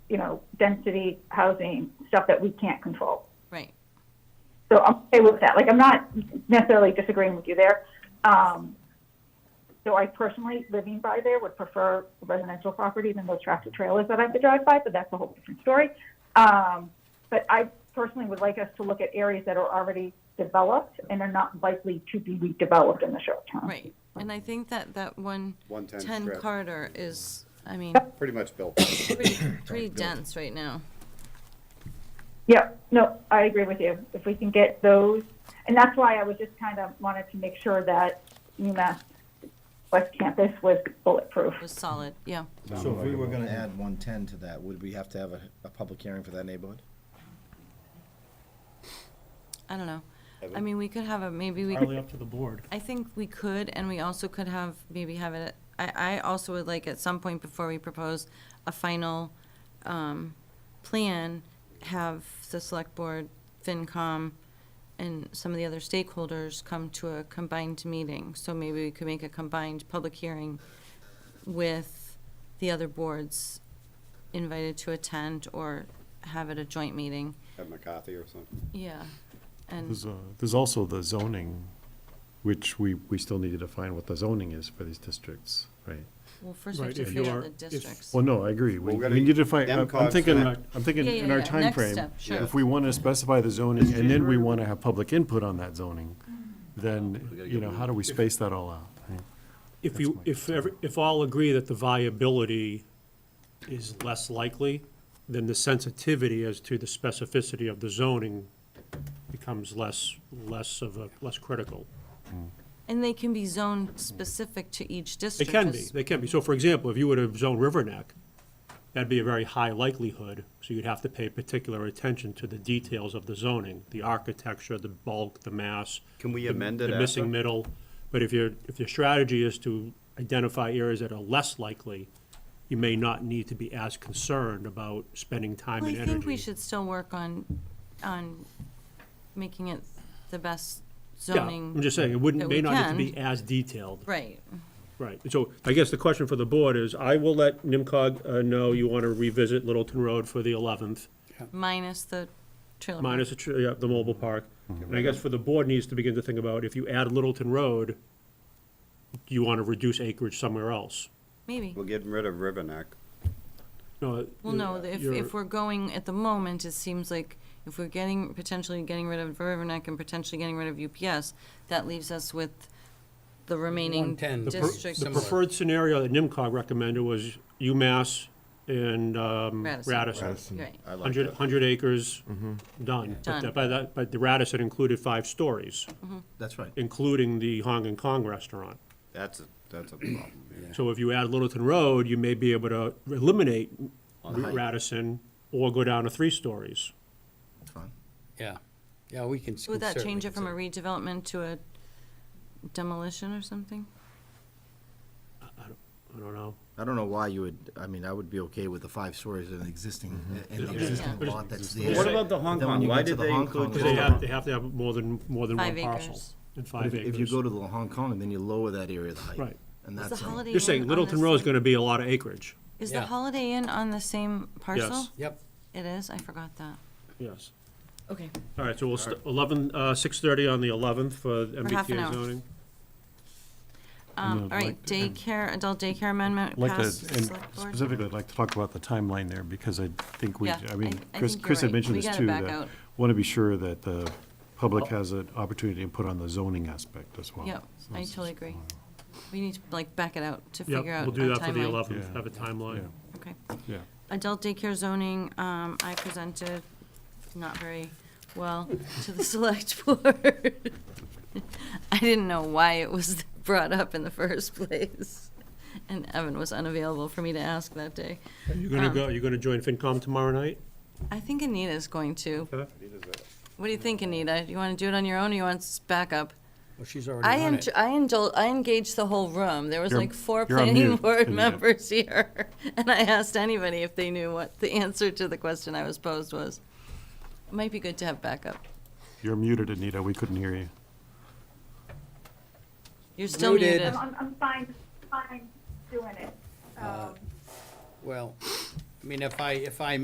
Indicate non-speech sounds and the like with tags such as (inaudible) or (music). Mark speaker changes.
Speaker 1: you know, density, housing, stuff that we can't control.
Speaker 2: Right.
Speaker 1: So I'm okay with that. Like, I'm not necessarily disagreeing with you there. Um, so I personally, living by there, would prefer residential property than those tractor trailers that I have to drive by, but that's a whole different story. Um, but I personally would like us to look at areas that are already developed and are not likely to be redeveloped in the short term.
Speaker 2: Right, and I think that that one,
Speaker 3: 110
Speaker 2: ten
Speaker 3: strip.
Speaker 2: Carter is, I mean,
Speaker 3: pretty much built. (coughs)
Speaker 2: pretty, pretty dense right now.
Speaker 1: Yeah, no, I agree with you. If we can get those, and that's why I was just kind of wanted to make sure that UMass West Campus was bulletproof.
Speaker 2: It was solid, yeah.
Speaker 4: So if we were gonna add one ten to that, would we have to have a, a public hearing for that neighborhood?
Speaker 2: I don't know. I
Speaker 3: Evan?
Speaker 2: mean, we could have a, maybe we,
Speaker 5: entirely up to the board.
Speaker 2: I think we could, and we also could have, maybe have it, I, I also would like at some point before we propose a final, um, plan, have the select board, FinCom, and some of the other stakeholders come to a combined meeting. So maybe we could make a combined public hearing with the other boards invited to attend or have it a joint meeting.
Speaker 3: At McCarthy or something.
Speaker 2: Yeah, and,
Speaker 6: There's, uh, there's also the zoning, which we, we still need to define what the zoning is for these districts, right?
Speaker 2: well, first we have
Speaker 5: Right,
Speaker 2: to
Speaker 5: if you
Speaker 2: figure out
Speaker 5: are-
Speaker 2: the
Speaker 5: if-
Speaker 2: districts.
Speaker 6: Well, no, I agree. We,
Speaker 3: Well, we gotta
Speaker 6: we need to define,
Speaker 3: get
Speaker 6: I'm
Speaker 3: MCOG's
Speaker 6: I'm thinking,
Speaker 3: back.
Speaker 6: I'm thinking
Speaker 2: Yeah, yeah,
Speaker 6: in our
Speaker 2: yeah. Next
Speaker 6: timeframe,
Speaker 2: step, sure.
Speaker 6: if we want to specify the zoning and then we want to have public input on that zoning, then, you know, how do we space that all out? right?
Speaker 5: If you, if, every- if all agree that the viability is less likely, then the sensitivity as to the specificity of the zoning becomes less, less of a, less critical.
Speaker 2: And they can be zoned specific to each
Speaker 5: They
Speaker 2: district.
Speaker 5: can be,
Speaker 2: as-
Speaker 5: they can be. So for example, if you were to zone River Neck, that'd be a very high likelihood, so you'd have to pay particular attention to the details of the zoning, the architecture, the bulk, the mass.
Speaker 3: Can we
Speaker 5: the-
Speaker 3: amend it
Speaker 5: The missing
Speaker 3: after?
Speaker 5: middle. But if your, if your strategy is to identify areas that are less likely, you may not need to be as concerned about spending time
Speaker 2: Well, I
Speaker 5: and
Speaker 2: think we
Speaker 5: energy.
Speaker 2: should still work on, on making it the best zoning.
Speaker 5: Yeah, I'm just saying, it wouldn't,
Speaker 2: that
Speaker 5: may
Speaker 2: we
Speaker 5: not need to
Speaker 2: can.
Speaker 5: be as detailed.
Speaker 2: Right,
Speaker 5: Right, so I guess the question for the board is, I will let NIMCOG uh, know you want to revisit Littleton Road for the 11th,
Speaker 2: minus the trailer. park.
Speaker 5: minus the tr- yeah, the mobile park.
Speaker 4: Mm-hmm.
Speaker 5: And I guess for the board needs to begin to think about, if you add Littleton Road, do you want to reduce acreage somewhere else?
Speaker 2: Maybe.
Speaker 3: We're getting rid of Riverneck.
Speaker 5: No. uh,
Speaker 2: Well, no, if,
Speaker 5: you're-
Speaker 2: if we're going, at the moment, it seems like if we're getting, potentially getting rid of Riverneck and potentially getting rid of UPS, that leaves us with the remaining
Speaker 7: 110. The per-
Speaker 2: districts.
Speaker 5: The
Speaker 7: Similar.
Speaker 5: preferred scenario that NIMCOG recommended was UMass and um,
Speaker 2: Radisson.
Speaker 5: Radisson.
Speaker 2: Right,
Speaker 4: I like
Speaker 5: 100
Speaker 4: that. Mm-hmm.
Speaker 5: 100 acres, done. But
Speaker 2: Done. Mm-hmm.
Speaker 5: that- By that, but the Radisson included five stories,
Speaker 4: That's right.
Speaker 5: including the Hong and Kong restaurant.
Speaker 3: That's a, that's a problem. yeah.
Speaker 5: So if you add Littleton Road, you may be able to eliminate Radisson or go down to three stories.
Speaker 4: That's fine.
Speaker 7: Yeah, yeah, we can. s-
Speaker 2: would that
Speaker 7: certainly
Speaker 2: change it from a
Speaker 7: consider-
Speaker 2: redevelopment to a demolition or something?
Speaker 5: I don't know.
Speaker 4: I don't know why you would, I mean, I would be okay with the five stories in an existing, in the existing
Speaker 2: Yeah.
Speaker 4: lot that's
Speaker 5: Yeah.
Speaker 4: there.
Speaker 3: What about the Hong
Speaker 4: Then when
Speaker 3: Kong?
Speaker 4: you
Speaker 3: Why
Speaker 4: get to
Speaker 3: did
Speaker 4: the
Speaker 3: they
Speaker 4: Hong
Speaker 3: include
Speaker 4: Kong,
Speaker 5: Because
Speaker 3: just
Speaker 5: they
Speaker 4: Yeah.
Speaker 5: have, they have to have more than, more than one
Speaker 2: Five
Speaker 5: parcel.
Speaker 2: acres.
Speaker 5: And
Speaker 4: But
Speaker 5: five
Speaker 4: if-
Speaker 5: acres.
Speaker 4: If you go to the Hong Kong, then you lower that area of the height.
Speaker 5: Right.
Speaker 4: And
Speaker 2: Is
Speaker 4: that's.
Speaker 2: the
Speaker 4: all.
Speaker 2: Holiday Inn
Speaker 5: You're saying
Speaker 2: on
Speaker 5: Littleton
Speaker 2: this
Speaker 5: Road's
Speaker 2: thing?
Speaker 5: gonna be a lot of acreage.
Speaker 2: Is the
Speaker 7: Yeah.
Speaker 2: Holiday Inn on the same parcel?
Speaker 7: Yep,
Speaker 2: It is? I forgot that.
Speaker 5: Yes.
Speaker 2: Okay.
Speaker 5: All right, so we'll, st- eleven, uh, six-thirty on the eleventh for
Speaker 2: half an
Speaker 5: MBTA
Speaker 2: hour.
Speaker 5: zoning.
Speaker 2: Um,
Speaker 6: No,
Speaker 2: all
Speaker 6: I'd
Speaker 2: right,
Speaker 6: like to-
Speaker 2: daycare, adult daycare amendment
Speaker 6: I'd Like to,
Speaker 2: passed
Speaker 6: and
Speaker 2: select board?
Speaker 6: specifically, I'd like to talk about the timeline there, because I think we,
Speaker 2: Yeah,
Speaker 6: I mean,
Speaker 2: I- I
Speaker 6: Chris,
Speaker 2: think you're
Speaker 6: Chris had
Speaker 2: right.
Speaker 6: mentioned
Speaker 2: We
Speaker 6: this
Speaker 2: gotta
Speaker 6: too,
Speaker 2: back
Speaker 6: that
Speaker 2: out. Oh.
Speaker 6: want to be sure that the public has an opportunity to put on the zoning aspect as well.
Speaker 2: Yep,
Speaker 6: So
Speaker 2: I
Speaker 6: it's-
Speaker 2: totally agree. We need to like back it out to figure
Speaker 5: Yep,
Speaker 2: out a
Speaker 5: we'll do
Speaker 2: timeline.
Speaker 5: that for the eleventh,
Speaker 6: Yeah.
Speaker 5: have a timeline.
Speaker 2: Okay.
Speaker 6: Yeah,
Speaker 2: Adult daycare zoning, um, I presented not very well to the (laughs) select board. I didn't know why it was (laughs) brought up in the first place. And Evan was unavailable for me to ask that day.
Speaker 5: You're gonna
Speaker 2: Um,
Speaker 5: go, you're gonna join FinCom tomorrow night?
Speaker 2: I think Anita's going to.
Speaker 5: Okay.
Speaker 2: What do you think, Anita? You want to do it on your own or you want s- backup?
Speaker 7: well, she's already
Speaker 2: I
Speaker 7: on
Speaker 2: en-
Speaker 7: it.
Speaker 2: I indul- I engaged the whole room. There was
Speaker 6: You're-
Speaker 2: like four
Speaker 6: you're on
Speaker 2: planning (laughs)
Speaker 6: mute,
Speaker 2: board
Speaker 6: Anita.
Speaker 2: members here. (laughs) And I asked anybody if they knew what the (laughs) answer to the question I was posed was. It Might be good to have backup.
Speaker 6: you're muted, Anita, we couldn't hear you.
Speaker 2: You're still
Speaker 7: Muted.
Speaker 2: muted.
Speaker 1: I'm, I'm, I'm fine, fine doing it. Um,
Speaker 7: Well, I mean, if I, if I